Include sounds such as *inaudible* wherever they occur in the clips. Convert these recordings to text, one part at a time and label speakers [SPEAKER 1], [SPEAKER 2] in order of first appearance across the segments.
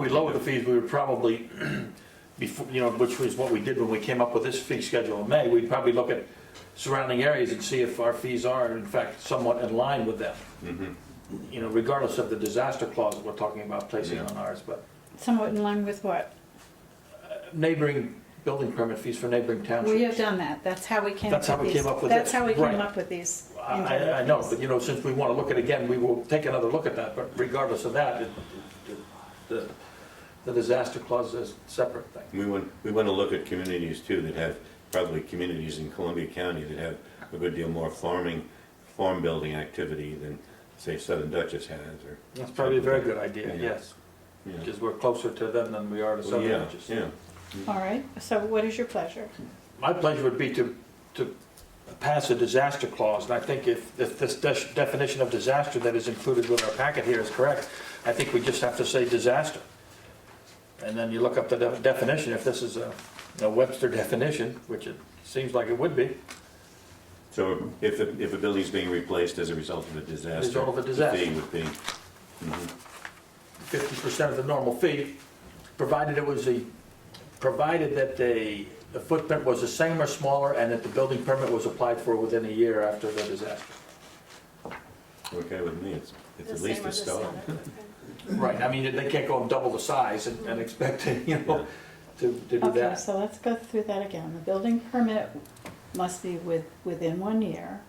[SPEAKER 1] We lowered the fees, we would probably, *clears throat* before, you know, which was what we did when we came up with this fee schedule in May, we'd probably look at surrounding areas and see if our fees are in fact somewhat in line with them. You know, regardless of the disaster clause that we're talking about placing on ours, but
[SPEAKER 2] Somewhat in line with what?
[SPEAKER 1] neighboring building permit fees for neighboring townships.
[SPEAKER 2] We have done that, that's how we came up with
[SPEAKER 1] That's
[SPEAKER 2] these.
[SPEAKER 1] how we came up with
[SPEAKER 2] That's
[SPEAKER 1] this,
[SPEAKER 2] how we came
[SPEAKER 1] right.
[SPEAKER 2] up with these.
[SPEAKER 1] I,
[SPEAKER 2] interim
[SPEAKER 1] I- I know,
[SPEAKER 2] fees.
[SPEAKER 1] but you know, since we want to look at it again, we will take another look at that, but regardless of that, it- it- the, the disaster clause is a separate thing.
[SPEAKER 3] We want, we want to look at communities too that have, probably communities in Columbia County that have a good deal more farming, farm building activity than, say, Southern Dutchess has or.
[SPEAKER 1] That's probably a very good idea,
[SPEAKER 3] Yeah.
[SPEAKER 1] yes,
[SPEAKER 3] you know.
[SPEAKER 1] because we're closer to them than we are to
[SPEAKER 3] Well,
[SPEAKER 1] Southern
[SPEAKER 3] Yeah,
[SPEAKER 1] Baptist.
[SPEAKER 3] yeah.
[SPEAKER 2] All right, so what is your pleasure?
[SPEAKER 1] My pleasure would be to, to pass a disaster clause, and I think if, if this de- definition of disaster that is included with our packet here is correct, I think we just have to say disaster. And then you look up the de- definition, if this is a a Webster definition, which it seems like it would be,
[SPEAKER 3] So if, the- if a building's being replaced as a result of a disaster.
[SPEAKER 1] Result of a
[SPEAKER 3] the
[SPEAKER 1] disaster.
[SPEAKER 3] fee would be,
[SPEAKER 1] fifty percent of the normal fee, provided it was a, provided that the, the footprint was the same or smaller, and that the building permit was applied for within a year after the disaster.
[SPEAKER 3] okay with me, it's, it's
[SPEAKER 4] The
[SPEAKER 3] at least
[SPEAKER 4] same or
[SPEAKER 3] a
[SPEAKER 4] the
[SPEAKER 3] start.
[SPEAKER 4] same.
[SPEAKER 1] Right, I mean, they can't go and double the size and, and expect *laughs* to, you know, to, to do
[SPEAKER 2] Okay,
[SPEAKER 1] that.
[SPEAKER 2] so let's go through that again. The building permit must be with, within one year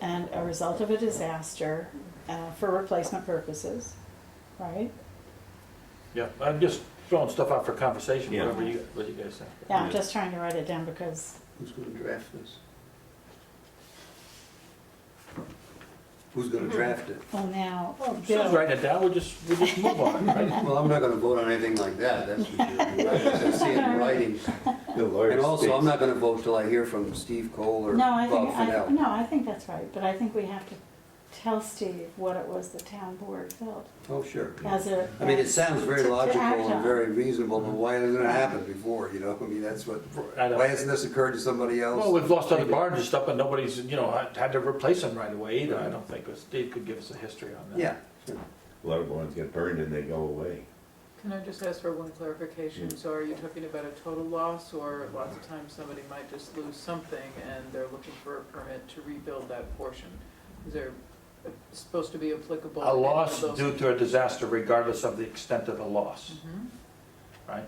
[SPEAKER 2] and a result of a disaster uh, for replacement purposes, right?
[SPEAKER 1] Yeah, I'm just throwing stuff out for conversation,
[SPEAKER 3] Yeah.
[SPEAKER 1] whatever you, what you guys think.
[SPEAKER 2] Yeah, I'm
[SPEAKER 3] Yeah.
[SPEAKER 2] just trying to write it down because,
[SPEAKER 5] Who's gonna draft this? Who's gonna draft it?
[SPEAKER 2] oh, now,
[SPEAKER 1] Just
[SPEAKER 2] Bill,
[SPEAKER 1] write it down, we'll just, we'll just move on,
[SPEAKER 2] *laughs*
[SPEAKER 1] right?
[SPEAKER 5] Well, I'm not gonna vote on anything like that, that's for sure. I just see it in writing.
[SPEAKER 3] The lawyer
[SPEAKER 5] And also, I'm
[SPEAKER 3] speaks.
[SPEAKER 5] not gonna vote till I hear from Steve Cole or
[SPEAKER 2] no, I
[SPEAKER 5] Bob
[SPEAKER 2] think, I-
[SPEAKER 5] Fennell.
[SPEAKER 2] no, I think that's right, but I think we have to tell Steve what it was the town board felt
[SPEAKER 5] Oh, sure.
[SPEAKER 2] as a.
[SPEAKER 5] I mean, it sounds
[SPEAKER 2] to-
[SPEAKER 5] very
[SPEAKER 2] to
[SPEAKER 5] logical
[SPEAKER 2] act
[SPEAKER 5] and
[SPEAKER 2] on.
[SPEAKER 5] very reasonable, but why hasn't it happened before, you know? I mean, that's what,
[SPEAKER 1] I know.
[SPEAKER 5] why hasn't this occurred to somebody else?
[SPEAKER 1] Well, we've lost other barns and stuff, but nobody's, you know, had- had to replace them right away either, I don't think, but Steve could give us a history on that.
[SPEAKER 5] Yeah, sure.
[SPEAKER 3] A lot of barns get burned and they go away.
[SPEAKER 6] Can I just ask for one clarification?
[SPEAKER 1] Mm.
[SPEAKER 6] So are you talking about a total loss, or lots of times somebody might just lose something and they're looking for a permit to rebuild that portion? Is there uh, supposed to be applicable?
[SPEAKER 1] A loss
[SPEAKER 6] to any of
[SPEAKER 1] due
[SPEAKER 6] those-
[SPEAKER 1] to a disaster regardless of the extent of the loss,
[SPEAKER 6] Mhm.
[SPEAKER 1] right?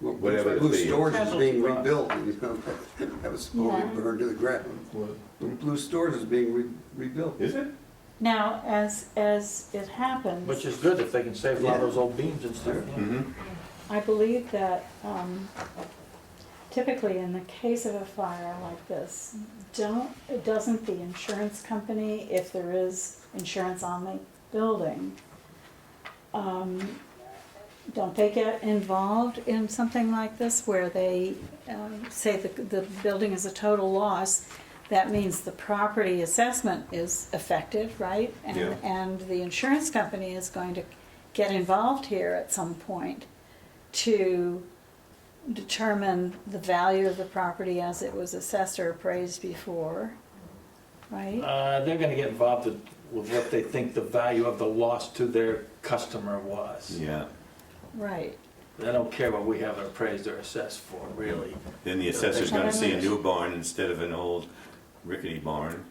[SPEAKER 5] Well,
[SPEAKER 3] Whatever the
[SPEAKER 5] Blue
[SPEAKER 3] fee is.
[SPEAKER 5] Storage is being
[SPEAKER 6] Casualty loss.
[SPEAKER 5] rebuilt, you know, *laughs* that was supposed to
[SPEAKER 2] Yeah.
[SPEAKER 5] be burned to the ground. Blue Storage is being re- rebuilt.
[SPEAKER 3] Is it?
[SPEAKER 2] Now, as, as it happens.
[SPEAKER 1] Which is good if they can save a lot of those old beams and stuff. yeah.
[SPEAKER 3] Mm-hmm.
[SPEAKER 2] I believe that um, typically in the case of a fire like this, don't, doesn't the insurance company, if there is insurance on the building, um, don't they get involved in something like this where they um, say the, the building is a total loss? That means the property assessment is affected, right? And-
[SPEAKER 3] Yeah.
[SPEAKER 2] And the insurance company is going to get involved here at some point to determine the value of the property as it was assessed or appraised before, right?
[SPEAKER 1] Uh, they're gonna get involved with with what they think the value of the loss to their customer was.
[SPEAKER 3] Yeah.
[SPEAKER 2] Right.
[SPEAKER 1] They don't care what we have it appraised or assessed for, really.
[SPEAKER 3] Then the assessor's gonna see a new barn instead of an old rickety barn,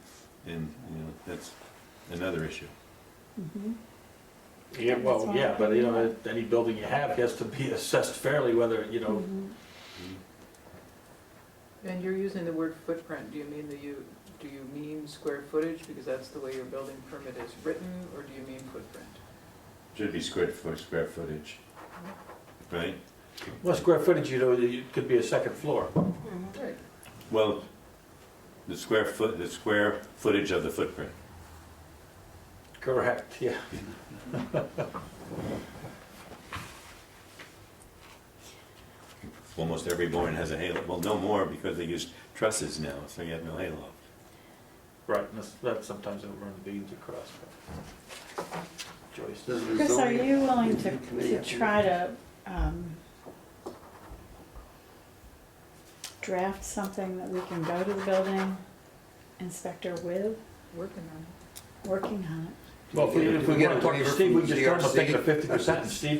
[SPEAKER 3] and, you know, that's another issue.
[SPEAKER 2] Mhm.
[SPEAKER 1] Yeah,
[SPEAKER 2] That's
[SPEAKER 1] well,
[SPEAKER 2] why-
[SPEAKER 1] yeah, but you know, any building you have has to be *laughs* assessed fairly, whether, you know,
[SPEAKER 2] Mhm.
[SPEAKER 6] And you're using the word footprint, do you mean the you, do you mean square footage, because that's the way your building permit is written, or do you mean footprint?
[SPEAKER 3] Should be square foot, square footage, right?
[SPEAKER 1] well, square footage, you know, it could be a second floor.
[SPEAKER 6] Right.
[SPEAKER 3] Well, the square foot, the square footage of the footprint.
[SPEAKER 1] Correct, yeah.
[SPEAKER 3] Almost every barn has a halo, well, no more because they use trusses now, so you have no halo.
[SPEAKER 1] Right, and that's, that's sometimes they'll run the beams across. but- Joyce.
[SPEAKER 5] Does the
[SPEAKER 2] Chris, are
[SPEAKER 5] zoning-
[SPEAKER 2] you willing to,
[SPEAKER 5] Committee
[SPEAKER 2] to
[SPEAKER 5] have
[SPEAKER 2] try to, um, draft something that we can go to the building inspector with,
[SPEAKER 6] Working on
[SPEAKER 2] working on it?
[SPEAKER 1] Well, if we, if we
[SPEAKER 5] get
[SPEAKER 1] want
[SPEAKER 5] a
[SPEAKER 1] to talk to
[SPEAKER 5] waiver
[SPEAKER 1] Steve,
[SPEAKER 5] from
[SPEAKER 1] we just tell him to take
[SPEAKER 5] GRC.
[SPEAKER 1] the fifty percent, and Steve